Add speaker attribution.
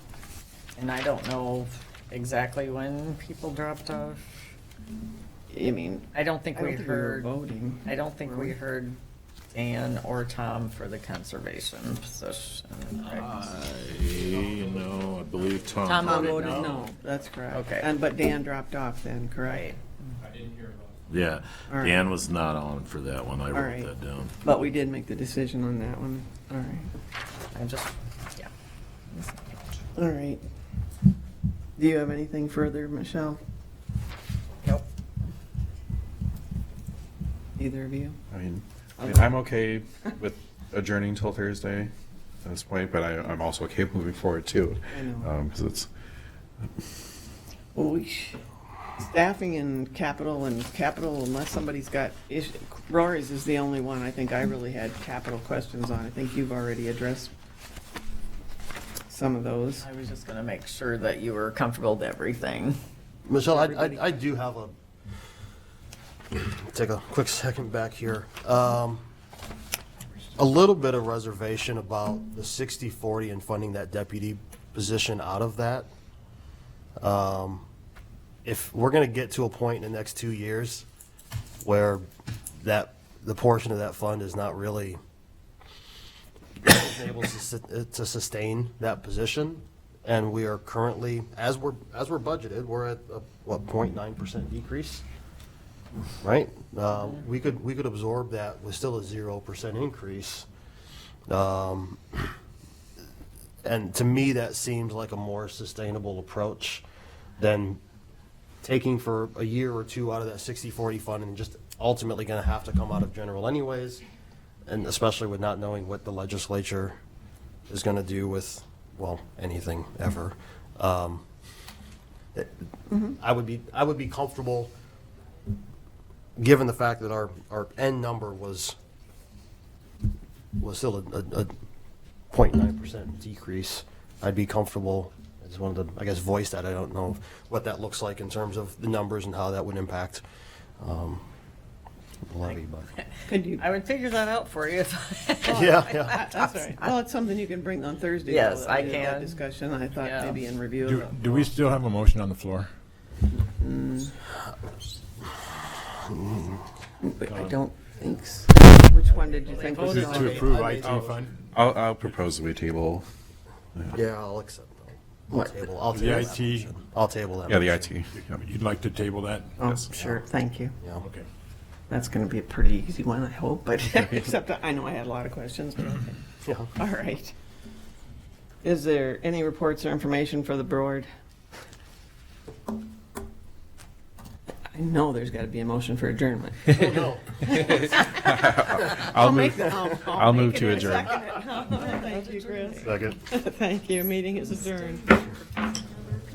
Speaker 1: and I don't know exactly when people dropped off.
Speaker 2: I mean,
Speaker 1: I don't think
Speaker 2: I
Speaker 1: we
Speaker 2: don't think we were
Speaker 1: heard,
Speaker 2: voting.
Speaker 1: I don't think
Speaker 2: were
Speaker 1: we
Speaker 2: we?
Speaker 1: heard Dan or Tom for the conservation position.
Speaker 3: Ah.
Speaker 1: right?
Speaker 3: I, no, I believe Tom.
Speaker 1: Tom
Speaker 2: Tom
Speaker 1: voted
Speaker 2: voted
Speaker 1: no.
Speaker 2: no, that's correct.
Speaker 1: Okay.
Speaker 2: And, but Dan dropped off then,
Speaker 1: Right,
Speaker 2: correct?
Speaker 3: Yeah,
Speaker 2: All right.
Speaker 3: Dan was not on for that one, I wrote
Speaker 2: right.
Speaker 3: that down.
Speaker 2: But we did make the decision on that one, all right,
Speaker 1: I'm just, yeah.
Speaker 2: all right. Do you have anything further, Michelle,
Speaker 1: Nope.
Speaker 2: either of you?
Speaker 4: I mean, I mean, I'm okay with adjourning till Thursday at this point, but I, I'm also okay moving forward too.
Speaker 2: I know.
Speaker 4: Because it's,
Speaker 2: Well, we, sh- staffing and capital and capital, unless somebody's got issue, Rory's is the only one I think I really had capital questions on. I think you've already addressed some of those.
Speaker 1: I was just gonna make sure that you were comfortable with everything.
Speaker 5: Michelle, I, I, I do have a, take a quick second back here. Um, a little bit of reservation about the 60-40 and funding that deputy position out of that. Um, If we're gonna get to a point in the next two years where that, the portion of that fund is not really able to sus- uh, to sustain that position, and we are currently, as we're, as we're budgeted, we're at, a, what, 0.9% decrease? Right? Uh, We could, we could absorb that with still a 0% increase. Um, And to me, that seems like a more sustainable approach than taking for a year or two out of that 60/40 fund and just ultimately going to have to come out of general anyways, and especially with not knowing what the legislature is going to do with, well, anything ever. Um, it- I would be, I would be comfortable, given the fact that our, our end number was, was still a, a- a 0.9% decrease, I'd be comfortable, I just wanted to, I guess, voice that. I don't know what that looks like in terms of the numbers and how that would impact um, the levy, but,
Speaker 2: Could you,
Speaker 1: I would figure that out for you if
Speaker 5: yeah, yeah.
Speaker 2: that's all right. Well, it's something you can bring on Thursday.
Speaker 1: Yes,
Speaker 2: though, that
Speaker 1: I
Speaker 2: we have that
Speaker 1: can.
Speaker 2: Discussion, I thought
Speaker 1: Yeah.
Speaker 2: maybe in review.
Speaker 6: Do,
Speaker 2: of the-
Speaker 6: do we still have a motion on the floor?
Speaker 2: But I don't think so. Which one did you think was
Speaker 6: To- To
Speaker 2: going?
Speaker 6: approve
Speaker 5: I
Speaker 6: IT
Speaker 5: made-
Speaker 6: fund?
Speaker 4: I'll, I'll propose that we table,
Speaker 5: Yeah, I'll accept that. I'll
Speaker 2: What?
Speaker 5: table, I'll
Speaker 6: The
Speaker 5: table that.
Speaker 6: IT
Speaker 5: I'll table that.
Speaker 4: yeah, the
Speaker 5: motion.
Speaker 4: IT. yeah.
Speaker 6: You'd like to table that?
Speaker 2: Oh, sure, thank you.
Speaker 5: Yeah.
Speaker 6: Okay.
Speaker 2: That's gonna be a pretty easy one, I hope, but, except that I know I had a lot of questions, but okay.
Speaker 5: Yeah.
Speaker 2: All right. Is there any reports or information for the board? I know there's got to be a motion for adjournment.
Speaker 4: Oh, I'll move, I'll move to adjourn.
Speaker 2: Thank you, Chris.
Speaker 5: Second.
Speaker 2: Thank you. Meeting is adjourned.